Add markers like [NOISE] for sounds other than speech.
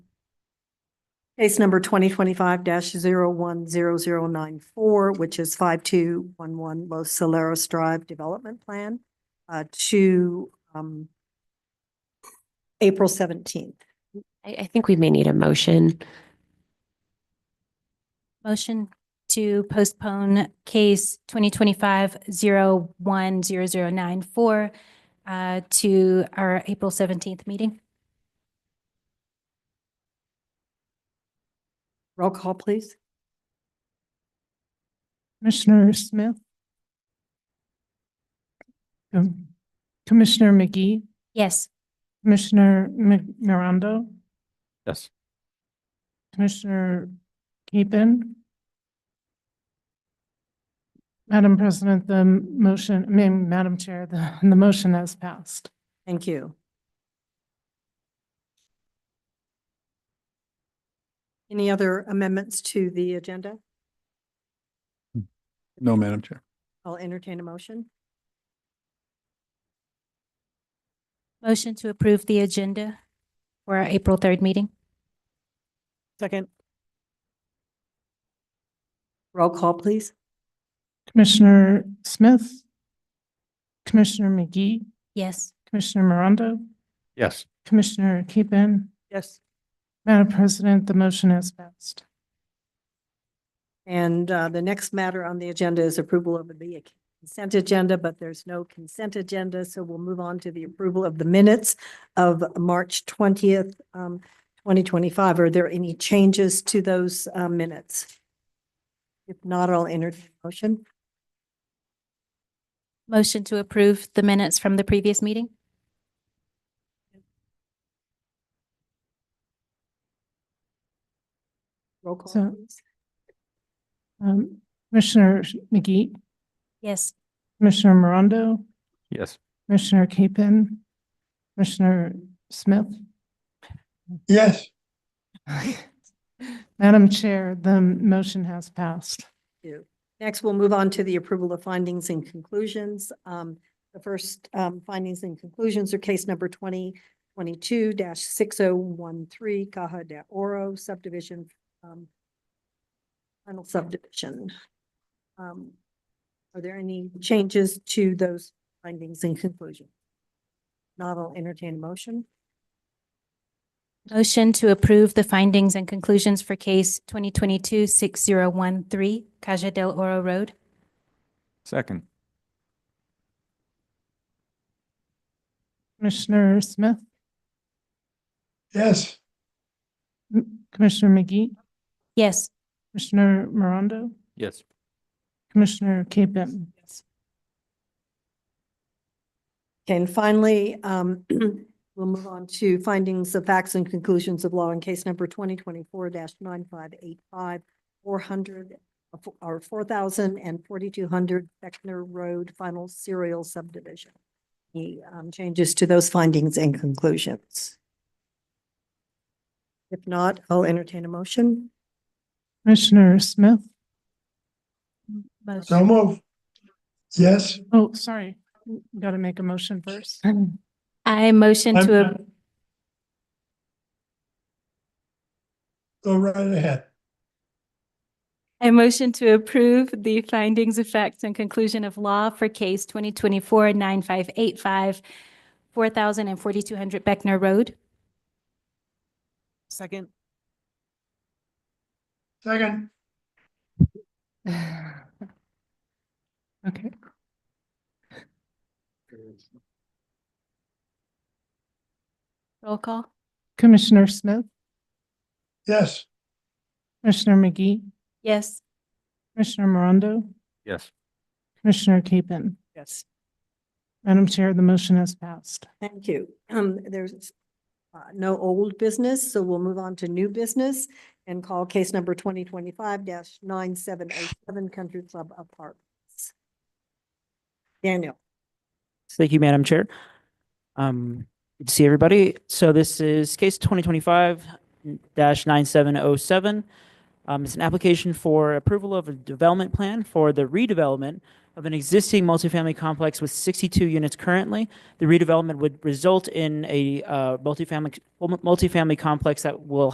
Case number twenty twenty-five 10094 which is five two one one Los Saleros Drive Development Plan uh, to um April seventeenth. I, I think we may need a motion. Motion to postpone case twenty twenty-five zero one zero zero nine four uh, to our April seventeenth meeting. Roll call, please. Commissioner Smith? Um, Commissioner McGee? Yes. Commissioner Mi- Morondo? Yes. Commissioner Keppen? Madam President, the motion, I mean, Madam Chair, the, the motion has passed. Thank you. Any other amendments to the agenda? No, Madam Chair. I'll entertain a motion. Motion to approve the agenda for our April third meeting. Second. Roll call, please. Commissioner Smith? Commissioner McGee? Yes. Commissioner Morondo? Yes. Commissioner Keppen? Yes. Madam President, the motion has passed. And uh, the next matter on the agenda is approval of the consent agenda, but there's no consent agenda, so we'll move on to the approval of the minutes of March twentieth, um, twenty twenty-five. Are there any changes to those uh, minutes? If not, I'll entertain a motion. Motion to approve the minutes from the previous meeting. Roll call, So- please. Um, Commissioner McGee? Yes. Commissioner Morondo, Yes. Commissioner Capen, Commissioner Smith. Yes. Madam Chair, the motion has passed. you. Next, we'll move on to the approval of findings and conclusions. Um, the first, um, findings and conclusions are case number twenty twenty-two six oh one three Caja de Oro subdivision, um, final subdivision. Um, are there any changes to those findings and conclusions? Not, I'll entertain a motion. Motion to approve the findings and conclusions for case twenty twenty-two six zero one three Caja del Oro Road. Second. Commissioner Smith, Yes. M- Commissioner McGee, Yes. Commissioner Morondo, Yes. Commissioner Capen. Okay, And finally, um, [CLEARS THROAT] we'll move on to findings of facts and conclusions of law in case number twenty twenty-four nine five eight five, four hundred, or four thousand and forty-two hundred Beckner Road Final Serial Subdivision. The, um, changes to those findings and conclusions. If not, I'll entertain a motion. Commissioner Smith, Motion. So move. Yes. oh, sorry, got to make a motion first. I motion I'm- to, a- I'm- Go right ahead. I motion to approve the findings, effects, and conclusion of law for case twenty twenty-four nine five eight five, four thousand and forty-two hundred Beckner Road. Second. [SIGHS] Second. Okay. Roll call. Commissioner Smith, Yes. Commissioner McGee, Yes. Commissioner Morondo, Yes. Commissioner Capen. Yes. Madam Chair, the motion has passed. Thank you. Um, there's uh, no old business, so we'll move on to new business and call case number twenty twenty-five nine seven oh seven Country Club Apartments. Daniel, Thank you, Madam Chair. Um, good to see everybody. So this is case twenty twenty-five nine seven oh seven. Um, it's an application for approval of a development plan for the redevelopment of an existing multifamily complex with sixty-two units currently. The redevelopment would result in a, uh, multifamily, multifamily complex that will